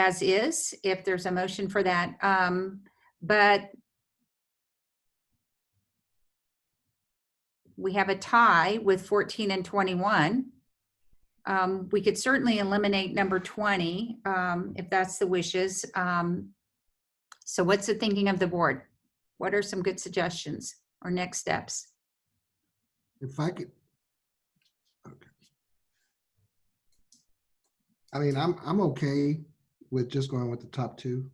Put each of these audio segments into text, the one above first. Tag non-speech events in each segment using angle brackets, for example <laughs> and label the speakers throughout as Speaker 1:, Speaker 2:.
Speaker 1: as is, if there's a motion for that. Um, But we have a tie with 14 and 21. Um, We could certainly eliminate number 20 um, if that's the wishes. Um, So what's the thinking of the board? What are some good suggestions or next steps?
Speaker 2: If I could. okay. I mean, I'm, I'm okay with just going with the top two.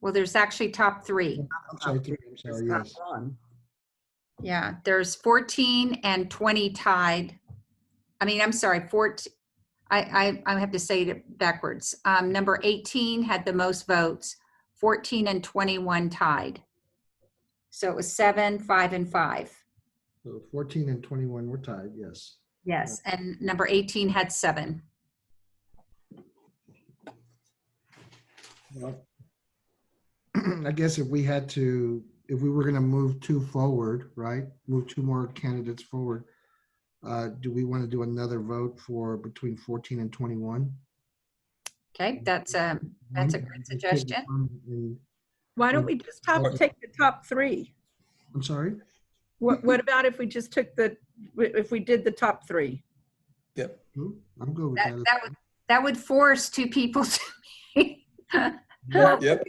Speaker 1: Well, there's actually top three.
Speaker 2: I'm sorry, three, I'm sorry, yes.
Speaker 1: Yeah, there's 14 and 20 tied. I mean, I'm sorry, 14, I, I, I have to say it backwards. Um, number 18 had the most votes, 14 and 21 tied. So it was seven, five, and five.
Speaker 2: So Fourteen and twenty-one were tied, yes. <clears throat>
Speaker 1: Yes. And number 18 had seven.
Speaker 2: Well, I guess if we had to, if we were gonna move two forward, right, move two more candidates forward, uh, do we want to do another vote for between fourteen and twenty-one?
Speaker 1: Okay, that's, um, that's a great suggestion.
Speaker 3: Why don't we just top,
Speaker 2: Or-
Speaker 3: take the top three?
Speaker 2: I'm sorry?
Speaker 3: What, what about if we just took the, if we did the top three?
Speaker 4: Yep.
Speaker 2: Hmm, I'm good with
Speaker 1: That,
Speaker 2: that.
Speaker 1: that would, that would force two people <laughs> to.
Speaker 3: Well,
Speaker 4: Yep.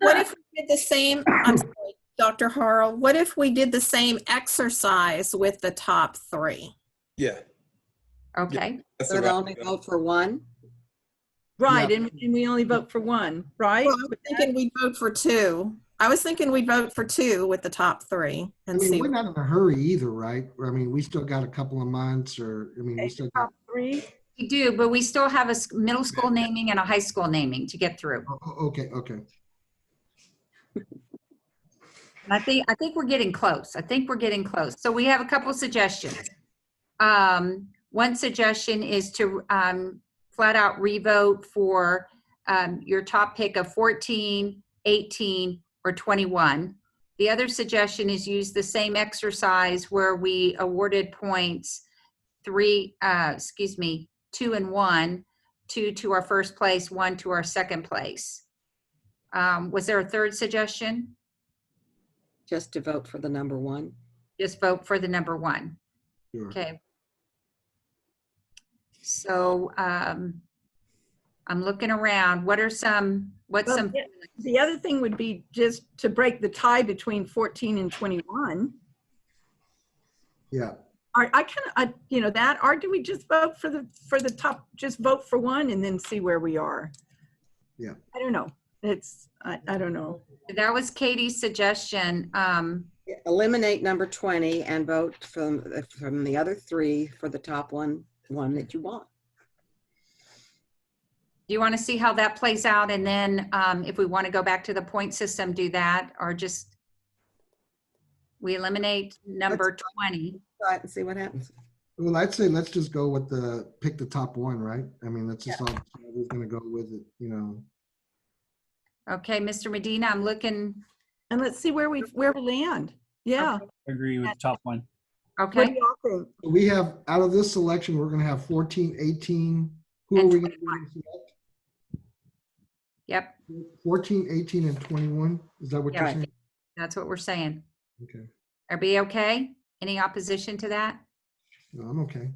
Speaker 5: What if we did the same, I'm sorry, Dr. Harrell, what if we did the same exercise with the top three?
Speaker 4: Yeah.
Speaker 1: <laughs> Okay,
Speaker 4: That's
Speaker 6: But
Speaker 4: about-
Speaker 6: only vote for one?
Speaker 3: Right, and, and we only vote for one, right?
Speaker 5: Well, I was thinking we'd vote for two. I was thinking we'd vote for two with the top three
Speaker 2: I
Speaker 5: and
Speaker 2: mean,
Speaker 5: see.
Speaker 2: we're not in a hurry either, right? Or, I mean, we still got a couple of months or, I mean, we
Speaker 3: Okay,
Speaker 2: still
Speaker 3: the
Speaker 2: got,
Speaker 3: Top three,
Speaker 1: we do, but we still have a s- middle school naming and a high school naming to get through.
Speaker 2: oh, oh, okay, okay.
Speaker 1: And I think, I think we're getting close. I think we're getting close. So we have a couple suggestions. Um, one suggestion is to, um, flat out revote for, um, your top pick of 14, 18, or 21. The other suggestion is use the same exercise where we awarded points three, uh, excuse me, two and one, two to our first place, one to our second place. Um, was there a third suggestion?
Speaker 6: Just to vote for the number one?
Speaker 1: just vote for the number one.
Speaker 2: Sure.
Speaker 1: Okay. So um I'm looking around. What are some, what's
Speaker 3: Well,
Speaker 1: some,
Speaker 3: yeah. the other thing would be just to break the tie between 14 and 21.
Speaker 2: Yeah,
Speaker 3: Are, I kind of, I, you know, that, or do we just vote for the, for the top, just vote for one and then see where we are?
Speaker 2: Yeah.
Speaker 3: I don't know. It's, I, I don't know.
Speaker 1: that was Katie's suggestion. Um
Speaker 6: Eliminate number 20 and vote from, from the other three for the top one, one that you want.
Speaker 1: Do you want to see how that plays out? And then um if we want to go back to the point system, do that or just we eliminate number 20.
Speaker 6: Try it and see what happens.
Speaker 2: well, I'd say let's just go with the, pick the top one, right? I mean, that's just all, we're gonna go with it, you know.
Speaker 1: Okay, Mr. Medina, I'm looking,
Speaker 3: And let's see where we, where we land. Yeah.
Speaker 7: Agree with the top one.
Speaker 3: What
Speaker 1: okay?
Speaker 3: do y'all think?
Speaker 2: We have, out of this selection, we're gonna have 14, 18. Who are
Speaker 1: And
Speaker 2: we gonna select?
Speaker 1: Yep,
Speaker 2: 14, 18, and 21? Is that what you're
Speaker 1: Yeah.
Speaker 2: saying?
Speaker 1: that's what we're saying.
Speaker 2: Okay,
Speaker 1: Everybody okay? Any opposition to that?
Speaker 2: no, I'm okay.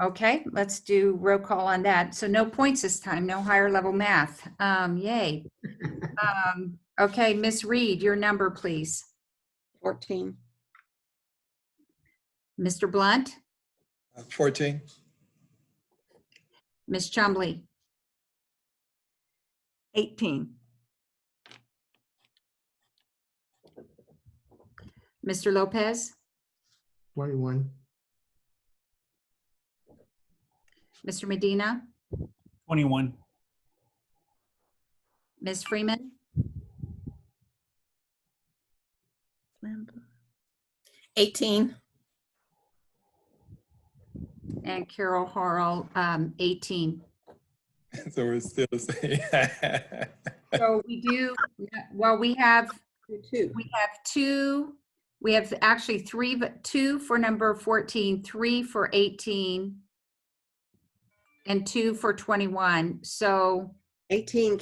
Speaker 1: Okay, let's do roll call on that. So no points this time, no higher level math. Um, yay. Um, okay, Miss Reed, your number, please.
Speaker 6: 14.
Speaker 1: Mr. Blunt,
Speaker 4: uh, 14.
Speaker 1: Miss Chumley,
Speaker 3: 18.
Speaker 1: Mr. Lopez,
Speaker 2: 21,
Speaker 1: Mr. Medina,
Speaker 7: 21.
Speaker 1: Miss Freeman,
Speaker 5: Eighteen.
Speaker 1: and Carol Harrell, um, eighteen.
Speaker 4: <laughs> So we're still the same. <laughs>
Speaker 1: So we do, well, we have
Speaker 6: You too.
Speaker 1: We have two, we have actually three, but two for number 14, three for 18, and two for 21. So
Speaker 6: 18